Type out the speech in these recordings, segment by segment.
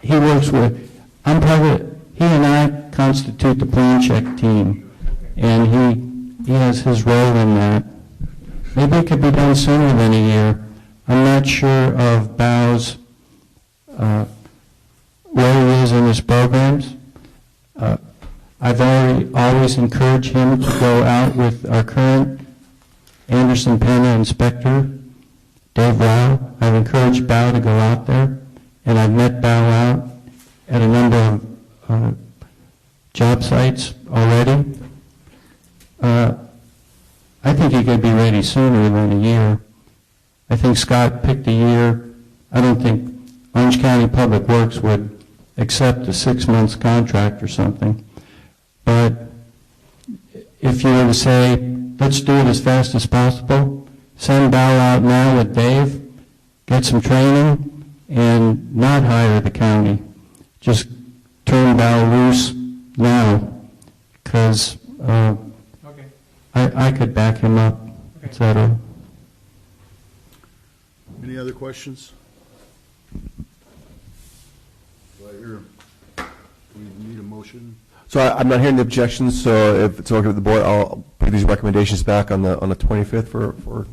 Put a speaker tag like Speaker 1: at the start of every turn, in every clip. Speaker 1: he works with, I'm part of, he and I constitute the plan check team, and he, he has his role in that. Maybe it could be done sooner than a year. I'm not sure of Bow's, uh, where he is in his programs. Uh, I've already, always encouraged him to go out with our current Anderson Pena inspector, Dave Rao. I've encouraged Bao to go out there, and I've met Bao out at a number of uh, job sites already. Uh, I think he could be ready sooner than a year. I think Scott picked a year. I don't think Orange County Public Works would accept a six-month contract or something. But if you were to say, let's do it as fast as possible, send Val out now with Dave, get some training, and not hire the county. Just turn Val loose now, because I
Speaker 2: Okay,
Speaker 1: I could back him up, et
Speaker 2: Okay.
Speaker 1: cetera.
Speaker 3: Any other questions? Do I hear, do we need a motion?
Speaker 4: So I- I'm not hearing the objections, so if it's okay with the board, I'll put these recommendations back on the, on the 25th for, for
Speaker 3: Okay,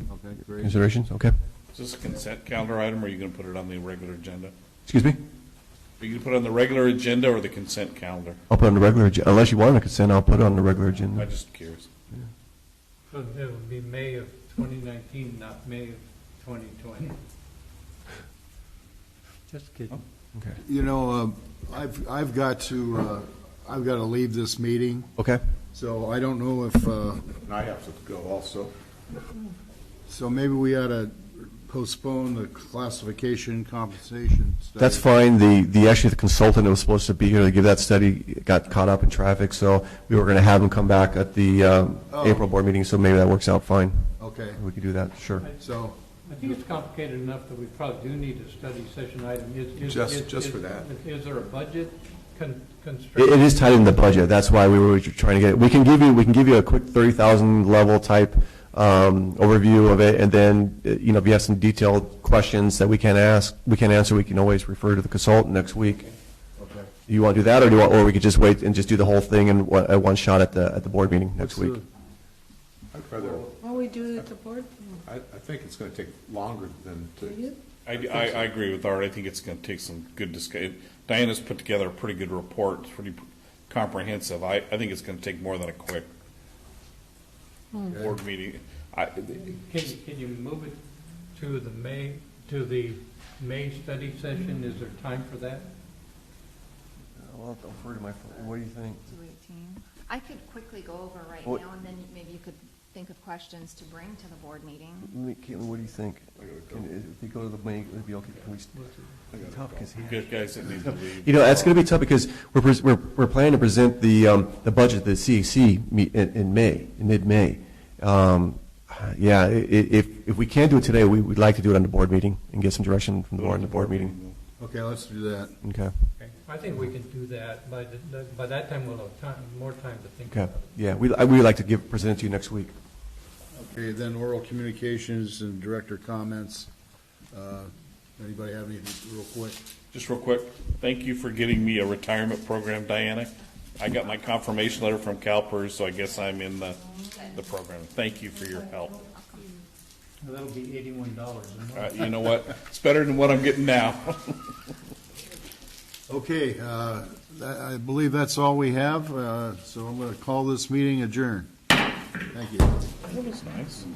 Speaker 3: great.
Speaker 4: considerations, okay?
Speaker 5: Is this a consent calendar item, or are you going to put it on the regular agenda?
Speaker 4: Excuse me?
Speaker 5: Are you going to put it on the regular agenda or the consent calendar?
Speaker 4: I'll put it on the regular, ag- unless you want to consent, I'll put it on the regular
Speaker 5: I'm
Speaker 4: agenda.
Speaker 5: just curious.
Speaker 2: so it will be May of 2019, not May of 2020. Just kidding.
Speaker 4: Okay.
Speaker 3: You know, um, I've, I've got to, uh, I've got to leave this meeting,
Speaker 4: Okay,
Speaker 3: so I don't know if, uh,
Speaker 5: And I have to go also.
Speaker 3: so maybe we ought to postpone the classification compensation study.
Speaker 4: that's fine. The, the, actually, the consultant that was supposed to be here to give that study got caught up in traffic, so we were going to have him come back at the um,
Speaker 3: Oh.
Speaker 4: April board meeting, so maybe that works out fine.
Speaker 3: Okay,
Speaker 4: We could do that, sure.
Speaker 3: so,
Speaker 2: I think it's complicated enough that we probably do need a study session item. Is- is-
Speaker 6: Just-
Speaker 2: is-
Speaker 6: just
Speaker 2: is-
Speaker 6: for that.
Speaker 2: Is there a budget con-
Speaker 4: It,
Speaker 2: constraint?
Speaker 4: it is tied in the budget, that's why we were trying to get, we can give you, we can give you a quick thirty thousand level type, um, overview of it, and then, uh, you know, if you have some detailed questions that we can't ask, we can't answer, we can always refer to the consultant next week.
Speaker 3: okay.
Speaker 4: Do you want to do that, or do you want, or we could just wait and just do the whole thing in, one- at one shot at the, at the board meeting next
Speaker 3: What's
Speaker 4: week?
Speaker 6: I'd rather,
Speaker 7: Well, we do it at the board,
Speaker 6: I, I think it's gonna take longer than
Speaker 7: do
Speaker 6: to,
Speaker 7: you?
Speaker 5: I, I, I agree with Art. I think it's going to take some good discussion. Diana's put together a pretty good report, It's pretty comprehensive. I, I think it's going to take more than a quick board meeting. I,
Speaker 2: Can you, can you move it to the May, to the May study session? Is there time for that?
Speaker 4: Well, I'll refer to my, what do you think?
Speaker 8: to 18. I could quickly go over right
Speaker 4: What-
Speaker 8: now, and then maybe you could think of questions to bring to the board meeting.
Speaker 4: Caitlin, what do you think? uh, If we go to the meeting, it'd be okay, can we, tough, because he
Speaker 5: good guys that need to leave.
Speaker 4: You know, that's going to be tough because we're, pres- we're, we're planning to present the, um, the budget to the CEC meet in, in May, in mid-May. Um, yeah, i- i- if, if we can do it today, we would like to do it on the board meeting and get some direction from the board on the board meeting.
Speaker 3: Okay, let's do that.
Speaker 4: Okay,
Speaker 2: Okay. I think we can do that. By, the- by that time, we'll have time, more time to think
Speaker 4: okay.
Speaker 2: about
Speaker 4: Yeah, we, I- we would like to give, present it to you next week.
Speaker 3: Okay, then oral communications and director comments. Uh, Anybody have anything real quick?
Speaker 5: Just real quick, thank you for getting me a retirement program, Diana. I got my confirmation letter from CalPERS, so I guess I'm in the, the program. Thank you for your help.
Speaker 2: it. That'll be $81 a month.
Speaker 5: Uh, You know what? It's better than what I'm getting now.
Speaker 3: Okay, uh, that- I believe that's all we have, uh, so I'm going to call this meeting adjourned. Thank you.
Speaker 5: That was nice.